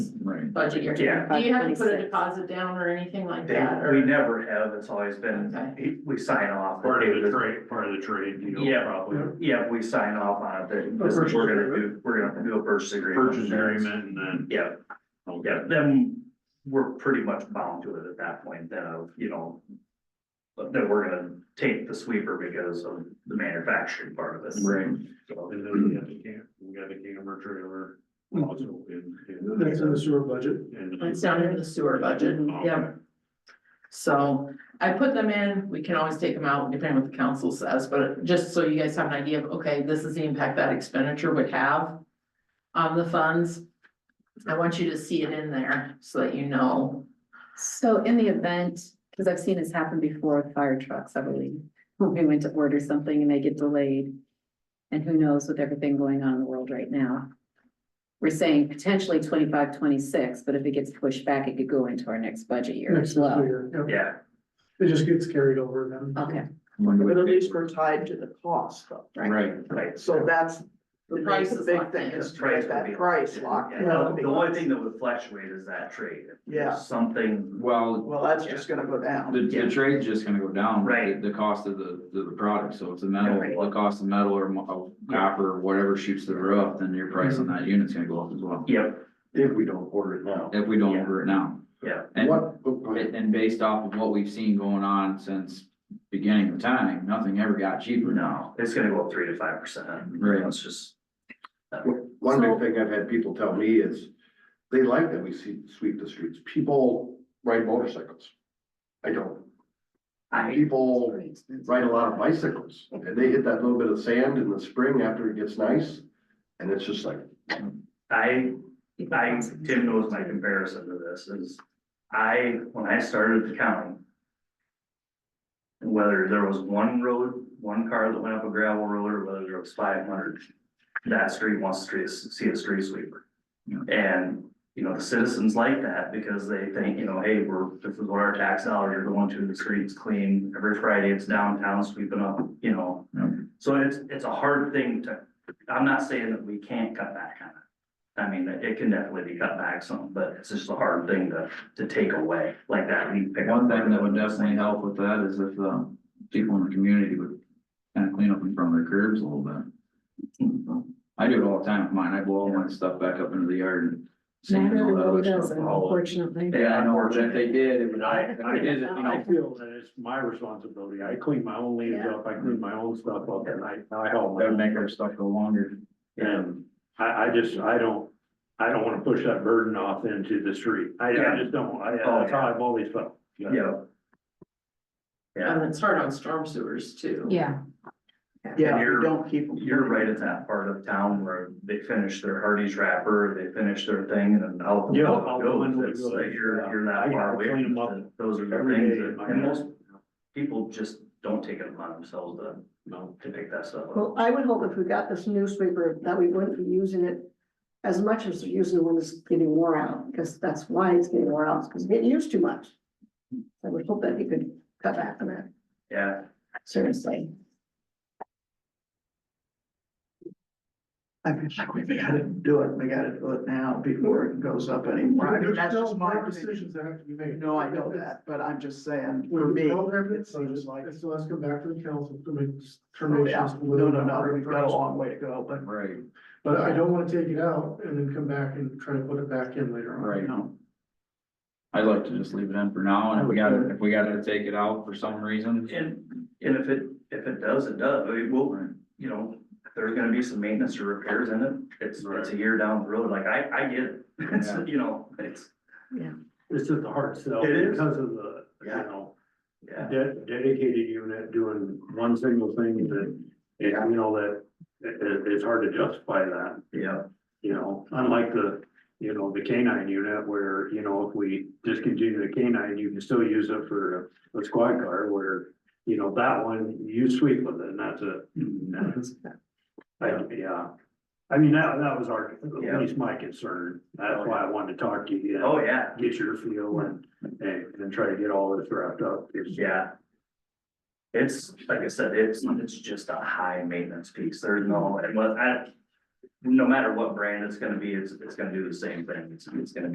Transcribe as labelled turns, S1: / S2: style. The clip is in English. S1: right?
S2: budget year.
S3: Yeah.
S2: Do you have to put a
S4: 26.
S2: deposit down or anything like
S3: They,
S2: that?
S3: we
S2: or-
S3: never have, it's always been, we sign off.
S1: Part of the trade, part of the trade, you know,
S3: Yeah.
S1: probably.
S3: Yeah, we sign off on it, that this is-
S1: Purchase
S3: we're gonna
S1: agreement.
S3: do, we're gonna do a purchase agreement.
S1: Purchase agreement and then.
S3: Yeah, yeah, then we're pretty much bound to it at that point, then of, you know. But then we're gonna take the sweeper because of the manufacturing part of it.
S1: Right.
S3: So,
S1: And then we got the camp, we got the camper trailer
S5: Mm-hmm.
S1: also in. in-
S5: That's in the sewer budget.
S1: in the-
S2: It's down in the sewer budget,
S1: Okay.
S2: yeah. So I put them in, we can always take them out depending on what the council says, but just so you guys have an idea of, okay, this is the impact that expenditure would have. On the funds. I want you to see it in there so that you know.
S4: So in the event, because I've seen this happen before with fire trucks, I believe, when we went to order something and they get delayed. And who knows with everything going on in the world right now. We're saying potentially 25, 26, but if it gets pushed back, it could go into our next budget year
S5: Next
S4: as well.
S5: year, yeah.
S3: Yeah,
S5: It just gets carried over then.
S4: Okay,
S6: But at least we're tied to the cost though.
S4: right.
S3: right.
S6: So that's.
S2: The price
S6: The
S2: is
S6: big
S2: locked
S6: thing
S2: in.
S6: is to
S3: Price
S6: get
S3: would be-
S6: that price locked. in.
S3: Yeah, The only thing that would fluctuate is that trade. If there's
S6: Yeah.
S3: Something,
S7: Well,
S6: Well, that's just gonna go down.
S7: the, the trade's just gonna go down. with
S3: Right.
S7: The the cost of the, the the product, so if the metal,
S3: Right.
S7: the cost of metal or mo- uh, copper, whatever shoots through the roof, then your price
S3: Mm-hmm.
S7: on that unit's gonna go up as well.
S3: yep,
S1: If we don't order it now.
S7: If we don't
S3: Yeah.
S7: order it now.
S3: Yeah.
S7: And, and and based off of what we've seen going on since beginning of time, nothing ever got cheaper.
S3: no, it's gonna go up three to five percent.
S7: Right.
S3: It's just.
S8: One
S4: So-
S8: big thing I've had people tell me is, they like that we see, sweep the streets, people ride motorcycles. I don't,
S3: I,
S8: people ride a lot of bicycles, and they hit that little bit of sand in the spring after it gets nice, and it's just like,
S3: I I, Tim knows my comparison to this is, I, when I started the county. Whether there was one road, one car that went up a gravel road, or whether there was five hundred, that street wants to see a- see a street sweeper.
S7: Yeah.
S3: And, you know, the citizens like that because they think, you know, hey, we're, this is what our tax dollars are going to, the streets clean, every Friday it's downtown sweeping up, you know.
S7: Yeah.
S3: So it's, it's a hard thing to, I'm not saying that we can't cut back on it. I mean, it it can definitely be cut back some, but it's just a hard thing to, to take away, like that leaf pickup.
S7: One thing that would definitely help with that is if, um, people in the community would kind of clean up in front of their curbs a little bit. I do it all the time with mine. I blow all my stuff back up into the yard and. sand all that other stuff all over.
S4: unfortunately.
S7: Yeah, I know, if they did, it would,
S1: And I,
S7: if they did, it, you
S1: I, I
S7: know,
S1: feel that it's my responsibility. I clean my own leaves up, I clean my own stuff up and I, I help.
S7: that would make our stuff go longer.
S1: And I, I just, I don't, I don't wanna push that burden off into the street. I, I just don't, I,
S3: Oh,
S1: that's how I've always felt.
S3: Yeah. Yeah,
S6: Um,
S2: And it's hard on storm sewers too.
S4: Yeah,
S6: Yeah,
S3: And
S6: if you
S3: you're-
S6: don't keep. them
S3: you're right at that part of town where they finish their Hardee's wrapper, they finish their thing and then out.
S1: Yeah,
S3: out
S1: out the
S3: goes.
S1: window it
S3: It's
S1: goes,
S3: like You're,
S1: yeah.
S3: you're
S1: I
S3: that far
S1: gotta
S3: away.
S1: clean 'em
S3: from
S1: up
S3: it. Those are the
S1: every
S3: things
S1: day in
S3: that,
S1: my
S3: and
S1: house.
S3: most people just don't take it upon themselves to,
S1: No.
S3: to pick that stuff up.
S9: Well, I would hope if we got this newspaper, that we wouldn't be using it as much as we're using it when it's getting wore out, because that's why it's getting wore out, because it's getting used too much. I would hope that we could cut back on that,
S3: Yeah,
S9: seriously.
S6: I feel like we gotta do it, we gotta do it now before it goes up anymore. I mean,
S5: There's
S6: that's
S5: still
S6: just my
S5: more
S6: opinion.
S5: decisions that have to be made.
S6: No, I know that, but I'm just saying, for
S5: When we
S6: me,
S5: program
S6: it
S5: it, so
S6: seems
S5: just
S6: like,
S5: like, so let's come back to the council to make
S6: oh, yeah,
S5: determinations.
S6: no, no, no, we've got a long way to go, but
S7: Right,
S5: But I don't wanna take it out and then come back and try to put it back in later on.
S7: right.
S6: no.
S7: I'd like to just leave it in for now, and if we gotta, if we gotta take it out for some reason,
S3: and, and if it, if it does, it does, I mean, we'll, you know, if there's gonna be some maintenance or repairs in it, it's, it's a year down the road, like, I, I get it. It's,
S7: Yeah.
S3: you know, it's,
S1: It's just a hard sell.
S3: It is.
S1: Because of the, you
S3: Yeah.
S1: know,
S3: yeah,
S1: de- dedicated unit doing one single thing that, yeah, you know, that, it- it, it's hard to justify that.
S3: yeah,
S1: You know, unlike the, you know, the canine unit where, you know, if we discontinue the canine, you can still use it for a- a squad car where. You know, that one, you sweep with it and that's it.
S3: Mm-hmm.
S1: That's- I, yeah, I mean, that, that was our,
S3: Yeah.
S1: at least my concern. That's why I wanted to talk to you.
S3: oh, yeah.
S1: Get your feel and, and, and try to get all this wrapped up. It's-
S3: Yeah. It's, like I said, it's, it's just a high maintenance piece, there's no, and what I. No matter what brand it's gonna be, it's, it's gonna do the same thing, it's, it's gonna be.